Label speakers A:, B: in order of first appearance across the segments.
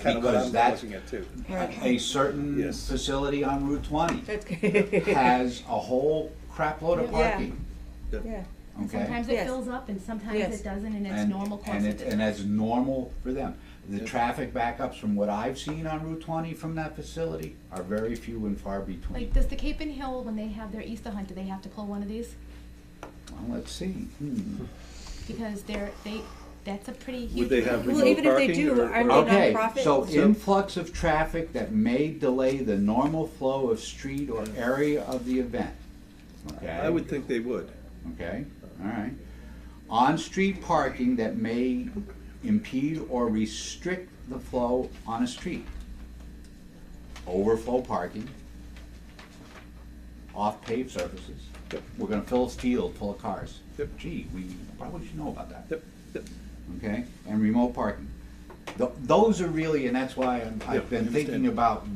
A: kind of what
B: because
A: I'm
B: that's-
A: looking at too.
B: A certain
A: Yes.
B: facility on Route twenty
C: That's good.
B: has a whole crapload of
D: Yeah. Yeah.
B: parking,
D: Yeah,
B: okay?
E: Sometimes it
D: Yes.
E: fills up and sometimes
D: Yes.
E: it doesn't and it's
B: And-
E: normal course
B: And
E: of
B: it, and
E: business.
B: that's normal for them. The traffic backups from what I've seen on Route twenty from that facility are very few and far
E: Like,
B: between.
E: does the Cape and Hill, when they have their Easter hunt, do they have to pull one of these?
B: Well, let's see, hmm.
E: Because they're, they, that's a pretty huge.
A: Would they have
D: Well,
A: remote
D: even if they
A: parking
D: do,
A: or-
D: aren't
A: or-
D: they
B: Okay,
D: nonprofit.
B: so
D: So-
B: influx of traffic that may delay the normal flow of street or area of the event, okay?
A: I would think they would.
B: Okay, all right. On-street parking that may impede or restrict the flow on a street. Overflow parking. Off-paved surfaces.
A: Yep.
B: We're gonna fill a field full of cars.
A: Yep.
B: Gee, we probably should know about that
A: Yep, yep.
B: okay, and remote parking. Th- Those are really, and that's why I'm-
A: Yeah,
B: I've been
A: I
B: thinking
A: understand.
B: about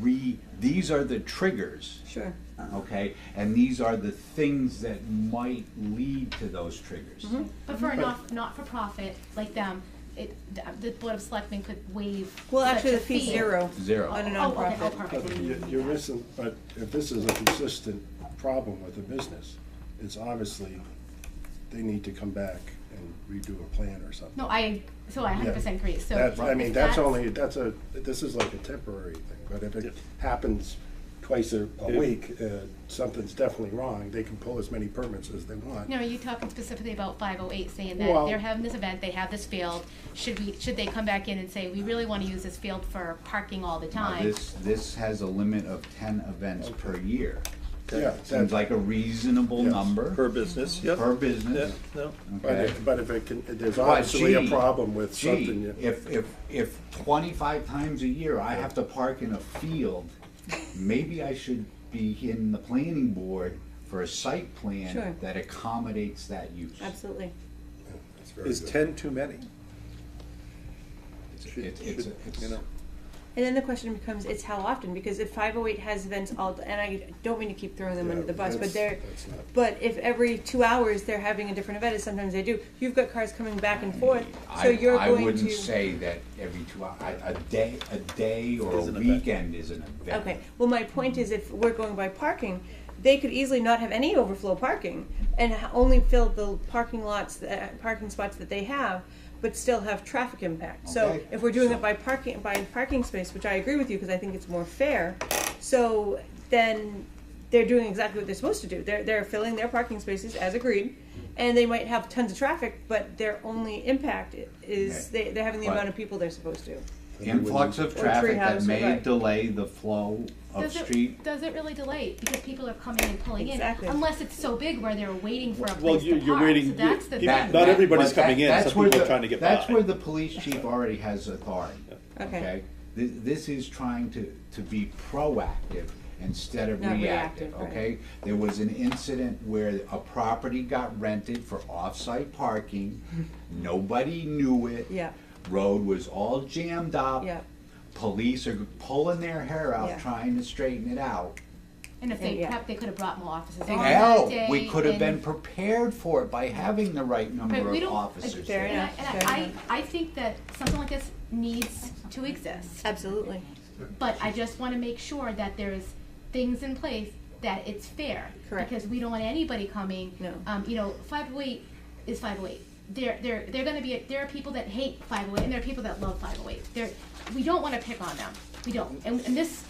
B: re, these are the triggers,
D: sure.
B: okay? And these are the things that might lead to those triggers.
E: But for a not, not-for-profit like them, it, the Board of Selectmen could waive
D: Well,
E: such
D: actually,
E: a
D: the fee's
E: fee.
D: zero
B: Zero.
D: on a
E: Oh, okay, oh,
D: nonprofit.
E: perfect.
F: You- You're missing, but if this is a consistent problem with the business, it's obviously, they need to come back and redo a plan or something.
E: No, I, so I hundred percent agree, so.
F: That's, I
E: if
F: mean, that's only, that's a, this is like a temporary thing, but if it happens twice a, a
A: Yeah.
F: week, uh, something's definitely wrong, they can pull as many permits as they want.
E: No, are you talking specifically about five oh eight, saying that
F: Well-
E: they're having this event, they have this field, should we, should they come back in and say, we really wanna use this field for parking all the
B: Now,
E: time?
B: This, this has a limit of ten events per year.
F: Yeah,
B: Seems
F: that's,
B: like a reasonable
F: Yes.
B: number
A: Per business, yep.
B: per
A: Yeah,
B: business,
A: no.
F: but
B: okay?
F: if, but if it can, there's
B: But
F: obviously a
B: gee,
F: problem with something.
B: Gee,
F: you-
B: if, if, if twenty-five times a year I have to park in a field, maybe I should be in the planning board for a site
D: Sure.
B: plan that accommodates that use.
D: Absolutely.
F: That's very
A: Is
F: good.
A: ten too many?
B: It's-
A: Should-
B: it's- it's-
A: should-
B: it's-
A: You know,
D: And then the question becomes, it's how often? Because if 508 has events all, and I don't mean to keep throwing them
F: Yeah,
D: under the bus, but
F: that's-
D: they're,
F: that's not-
D: but if every two hours they're having a different event, as sometimes they do, you've got cars coming back and forth, so
B: I-
D: you're going to.
B: I wouldn't say that every two hours, a day, a day or a
A: Is an event.
B: weekend is an event.
D: Okay, well, my point is if we're going by parking, they could easily not have any overflow parking and h- only fill the parking lots, that- parking spots that they have, but still have traffic impact. So
B: Okay.
D: if we're doing
B: So-
D: it by parking, by parking space, which I agree with you because I think it's more fair, so then they're doing exactly what they're supposed to do. They're, they're filling their parking spaces as agreed, and they might have tons of traffic, but their only impact i- is
B: Okay.
D: they, they're having the
B: But-
D: amount of people they're supposed to.
B: Influx of
D: Or
B: traffic that
D: treehouse,
B: may
D: right.
B: delay the flow of
E: Does
B: street.
E: it, does it really delay, because people are coming and pulling in,
D: Exactly.
E: unless it's so big where they're waiting for a
G: Well,
E: place
G: you,
E: to
G: you're
E: park, so
G: waiting.
E: that's the
G: you-
E: thing.
G: Not everybody's
B: But that-
G: coming in.
B: that's
G: Some
B: where
G: people are
B: the-
G: trying to get
B: That's
G: by.
B: where the police chief already has authority.
D: Okay.
B: Okay? This, this is trying to, to be proactive instead of
D: Not
B: reactive,
D: reactive, right.
B: okay? There was an incident where a property got rented for off-site parking. Nobody knew it.
D: Yeah.
B: Road was all jammed up.
D: Yeah.
B: Police are pulling their hair
D: Yeah.
B: out, trying to straighten it out.
E: And if they
D: Yeah.
E: prepped, they could have brought more officers on that
B: Hell,
E: day.
B: we could have been
E: and-
B: prepared for it by having the right
E: But
B: number
E: we
B: of
E: don't-
B: officers
D: Fair
B: there.
E: And I,
D: enough,
E: and
D: fair
E: I, I think that something like this needs to exist,
D: Absolutely.
E: but I just wanna make sure that there's things in place that it's fair.
D: Correct.
E: Because we don't want anybody coming.
D: No.
E: Um, you know, five oh eight is five oh eight. There, there, they're gonna be, there are people that hate five oh eight and there are people that love five oh eight. There, we don't wanna pick on them, we don't. And, and this,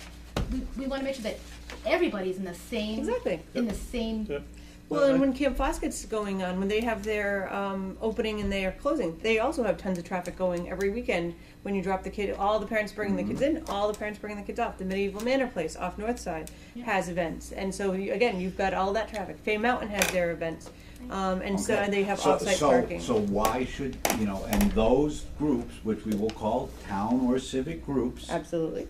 E: we, we wanna make sure that everybody's in the same.
D: Exactly.
E: In the same
G: Yep.
D: Well, and when Camp Foskett's going on, when they have their um, opening and they are closing, they also have tons of traffic going every weekend. When you drop the kid, all the parents bringing the kids in, all the parents bringing the kids off. The Medieval Manor Place off North Side has events, and so you, again, you've got all that traffic. Fay Mountain has their events, um, and so
B: Okay.
D: they have
B: So-
D: off-site
B: so-
D: parking.
B: So why should, you know, and those groups, which we will call town or civic groups,
D: Absolutely.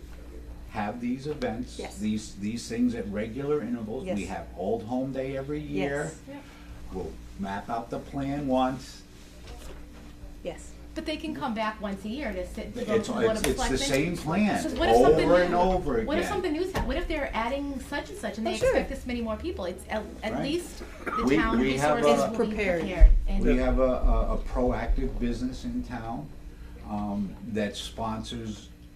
B: have these events,
D: Yes.
B: these, these things at regular intervals. We
D: Yes.
B: have Old Home Day every year.
D: Yes.
B: We'll map out the plan once.
D: Yes.
E: But they can come back once a year to sit, to go
B: It's,
E: to the Board
B: it's
E: of
B: it's the same
E: Selectmen.
B: plan,
E: Because what if something
B: over and
E: new-
B: over again.
E: What if something new's hap, what if they're adding such and such and they
D: Oh, sure.
E: expect this many more people? It's at, at
B: Right.
E: least the
B: We-
E: town
B: we have
E: resources
D: a-
E: will be
D: Prepared.
E: prepared. and-
B: We have a, a, a proactive business in town, um, that sponsors